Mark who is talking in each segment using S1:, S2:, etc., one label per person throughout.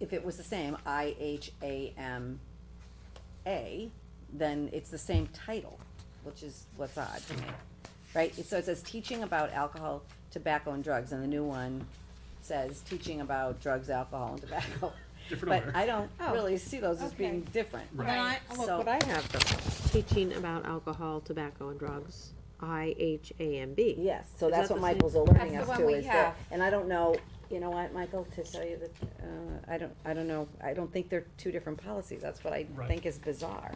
S1: if it was the same, I H A M A, then it's the same title, which is what's odd to me. Right, It- so it says teaching about alcohol, tobacco and drugs, and the new one says teaching about drugs, alcohol and tobacco.
S2: Different
S1: But
S2: order.
S1: I don't
S3: Oh,
S1: really see those as being
S3: okay.
S1: different.
S2: Right.
S3: And I,
S1: Right.
S3: look
S1: So-
S3: what I have though.
S4: Teaching about alcohol, tobacco, and drugs, I H A M B.
S1: Yes, so that's what
S4: Is that the same?
S1: Michael's alerting
S3: That's
S1: us
S3: the
S1: to
S3: one we
S1: is that,
S3: have.
S1: and I don't know, you know what, Michael, to tell you that, uh, I don't, I don't know, I don't think they're two different policies, that's what I
S2: Right.
S1: think is bizarre.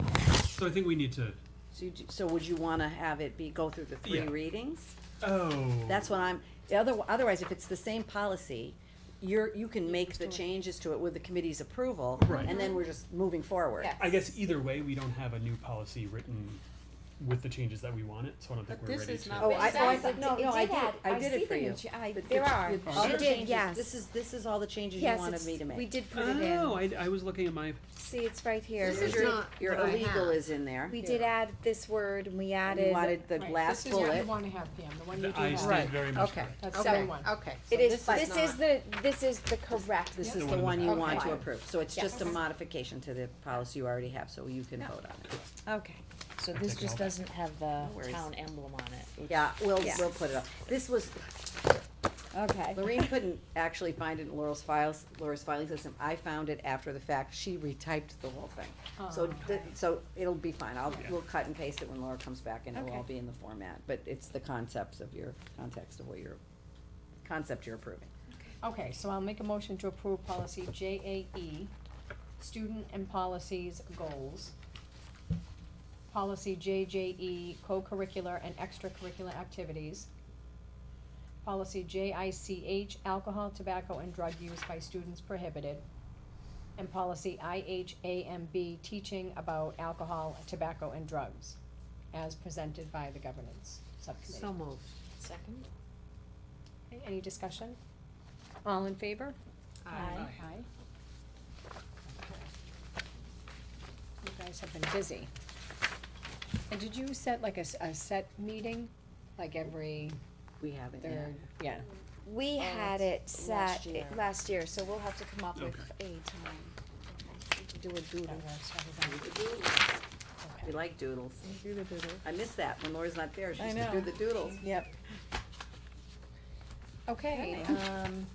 S2: So I think we need to,
S1: So you, do- so would you wanna have it be, go through the three
S2: Yeah.
S1: readings?
S2: oh.
S1: That's what I'm, the other, otherwise, if it's the same policy, you're, you can make the changes to it with the committee's approval,
S2: Right.
S1: and then we're just moving forward.
S3: Yeah.
S2: I guess either way, we don't have a new policy written with the changes that we want it, so I don't think
S3: But
S2: we're
S3: this
S2: ready
S3: is
S2: to.
S3: not
S1: Oh, I, oh, I,
S3: It
S1: thought- no,
S5: did
S1: no, I did,
S5: add-
S1: I
S5: I
S1: did
S5: see
S1: it for
S5: them
S1: you.
S5: in ch- I-
S1: But
S5: there
S1: the-
S5: are.
S1: the-
S5: She
S1: all the
S5: did,
S1: changes-
S5: yes.
S1: This is, this is all the changes you
S5: Yes,
S1: wanted
S5: it's,
S1: me to make.
S5: we did put it
S2: Oh,
S5: in.
S2: I, I was looking at my,
S5: See, it's right here.
S4: This is
S5: Your-
S4: not
S1: Your
S4: what I
S1: illegal
S4: have.
S1: is in there.
S5: We did add this word and we
S1: And You
S5: added.
S1: wanted the
S6: Right,
S1: last
S6: This is
S1: bullet.
S6: what you wanna have, Pam, the one you do
S2: the- I
S6: have.
S2: stand very much
S1: Okay.
S2: correct.
S6: That's
S4: Okay,
S6: seven one.
S4: okay.
S5: It
S4: so
S5: is,
S4: this
S5: this is
S4: not-
S5: the, this is the correct.
S1: This is
S2: Yep.
S1: the one you
S2: Okay.
S1: want to
S5: Okay.
S1: approve, so it's just a
S5: Yes.
S1: modification to the policy you already have, so you can vote on it.
S5: Okay.
S7: So
S2: I'll
S7: this
S2: take it
S7: just
S2: all.
S7: doesn't have the
S1: worries.
S7: town emblem on it.
S1: Yeah, we'll,
S5: Yeah.
S1: we'll put it up. This was,
S5: Okay.
S1: Lorraine couldn't actually find it in Laurel's files, Laura's filing system, I found it after the fact, she retyped the whole thing. So,
S6: Oh,
S1: th- so it'll be fine, I'll,
S2: Yeah.
S1: we'll cut and paste it when Laura comes back and it'll all
S5: Okay.
S1: be in the format, but it's the concepts of your, context of what you're, concept you're approving.
S6: Okay, so I'll make a motion to approve policy J A E, student and policies goals. Policy J J E, co-curricular and extracurricular activities. Policy J I C H, alcohol, tobacco, and drug use by students prohibited. And policy I H A M B, teaching about alcohol, tobacco, and drugs, as presented by the governance subcommittee.
S4: So moved.
S7: Second?
S6: Okay, Any discussion? All in favor?
S7: Aye.
S6: Aye. You guys have been busy. And did you set like a, s- a set meeting, like every
S1: We haven't yet.
S6: third, yeah?
S5: We had it
S1: last
S5: set
S1: year.
S5: i- last year, so we'll have to come up with a time.
S6: Do a doodle.
S1: We like doodles. I miss that, when Laura's not there, she used to do the doodles.
S3: Yep.
S6: Okay, um,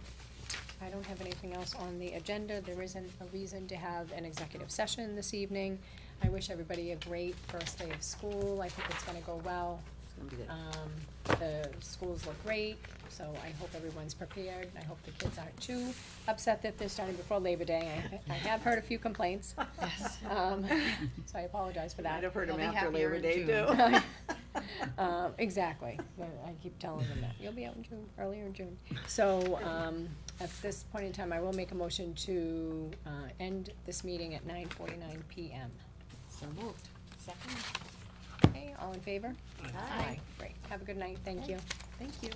S6: I don't have anything else on the agenda. There isn't a reason to have an executive session this evening. I wish everybody a great first day of school. I think it's gonna go well.
S1: It's gonna be good.
S6: Um, the schools look great, so I hope everyone's prepared, and I hope the kids aren't too upset that they're starting before Labor Day. I, I have heard a few complaints. Yes. Um, so I apologize for that.
S1: Might have heard
S7: They'll
S1: him
S7: be
S1: after
S7: happier
S1: Labor
S7: in
S1: Day
S7: June.
S1: too.
S6: Um, exactly, But I keep telling them that, you'll be out in June, earlier in June. So, um, at this point in time, I will make a motion to, uh, end this meeting at nine forty-nine PM.
S4: So moved.
S7: Second?
S6: Okay, all in favor?
S7: Aye.
S6: Great, have a good night, thank you.
S4: Oh,
S7: Thank you.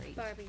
S7: Right.
S5: Barbie,